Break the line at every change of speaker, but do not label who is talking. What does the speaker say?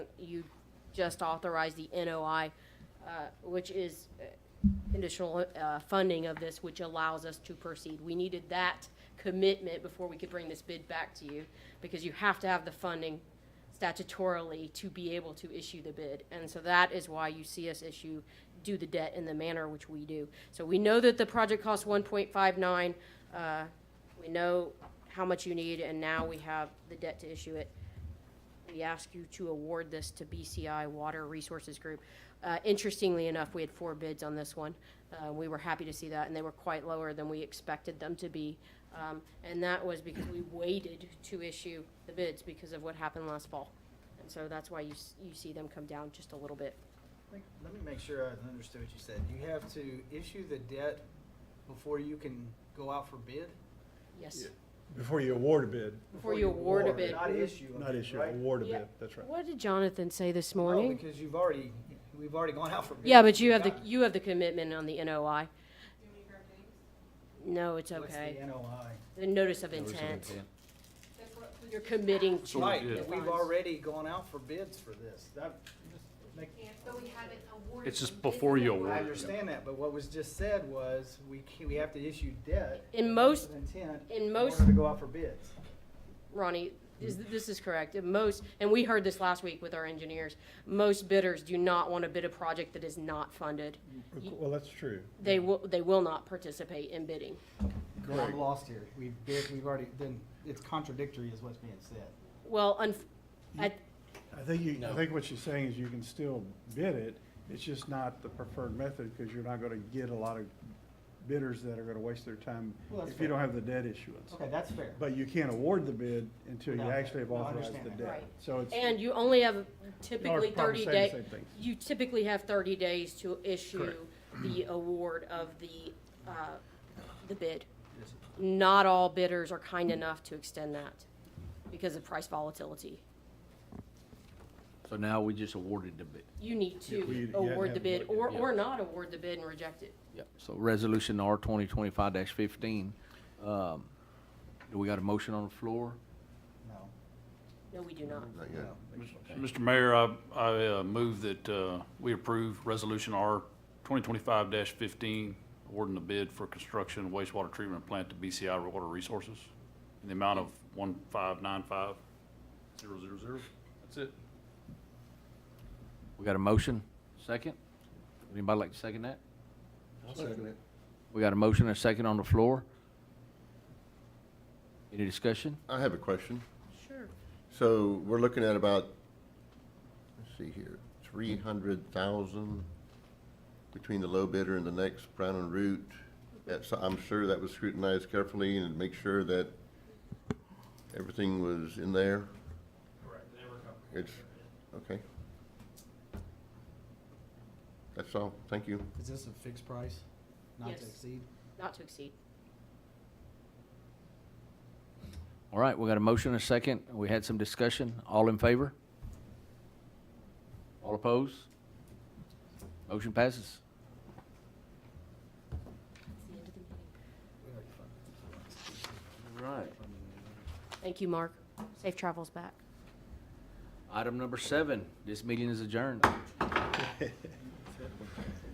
you just authorized the NOI, uh, which is uh, conditional uh, funding of this, which allows us to proceed. We needed that commitment before we could bring this bid back to you, because you have to have the funding statutorily to be able to issue the bid. And so that is why you see us issue, do the debt in the manner which we do. So we know that the project costs 1.59, uh, we know how much you need, and now we have the debt to issue it. We ask you to award this to BCI Water Resources Group. Uh, Interestingly enough, we had four bids on this one. Uh, We were happy to see that, and they were quite lower than we expected them to be. Um, And that was because we waited to issue the bids because of what happened last fall. And so that's why you, s- you see them come down just a little bit.
Make- Let me make sure I understood what you said. You have to issue the debt before you can go out for bid?
Yes.
Before you award a bid,
Before you award a bid.
Not issue. a
not
bid,
issue,
right? Oh,
award a
Yeah.
bid, that's right.
What did Jonathan say this
No,
morning?
Because you've already, we've already gone out for bid.
Yeah, but you have the,
Got it.
you have the commitment on the NOI. No, it's
What's the uh,
okay.
NOI?
The notice of intent. You're committing to.
we
Right,
did.
but we've already gone out for bids for this. That, make-
But we haven't awarded.
It's just
them.
before you
I
award.
understand that, but what was just said was, we can, we have to issue debt.
In most,
with Intent.
in most-
order to go out for bids.
Ronnie, is, this is correct. In Most, and we heard this last week with our engineers, most bidders do not want to bid a project that is not funded. You-
Well, that's true.
They will, they will not participate in bidding.
I'm lost here. We've bid, we've already, then it's contradictory is what's being said.
Well, unf- at,
I think you, I think what she's saying is you can still bid it, it's just not the preferred method, because you're not gonna get a lot of bidders that are gonna waste their time
Well, that's
if you don't
fair.
have the debt issuance.
Okay, that's fair.
But you can't award the bid until you
No,
actually have
no, I
authorized
understand
the
that.
debt.
Right.
So it's.
And you only have
Y'all
typically
are probably
thirty day,
saying the same thing.
you typically have thirty days to issue the award of the, uh, the bid. Not all bidders are kind enough to extend that because of price volatility.
So now we just awarded the bid.
You need
Yeah, we-
to
you had to
award
have
the
it
bid
voted,
or,
yeah.
or not award the bid and reject it.
Yep. So resolution R twenty twenty-five fifteen. Um, do we got a motion on the floor?
No.
No, we do not.
Mm-hmm.
Mr. Mayor, I, I uh, move that uh, we approve Resolution R 2025-15, awarding the bid for construction of wastewater treatment plant to BCI Water Resources in the amount of 1595000. That's it.
We got a motion? Second? Anybody like to second that? We got a motion and a second on the floor? Any discussion?
I have a question.
Sure.
So we're looking at about, let's see here, three hundred thousand between the low bidder and the next Brown and Root. That's, I'm sure that was scrutinized carefully and make sure that everything was in there. Correct. It's, okay. That's all. Thank you.
Is this a fixed price? Not
Yes.
to exceed?
Not to exceed.
All right, we got a motion and a second. We had some discussion. All in favor? All opposed? Motion passes. All right.
Thank you, Mark. Safe travels back.
Item number seven, this meeting is adjourned.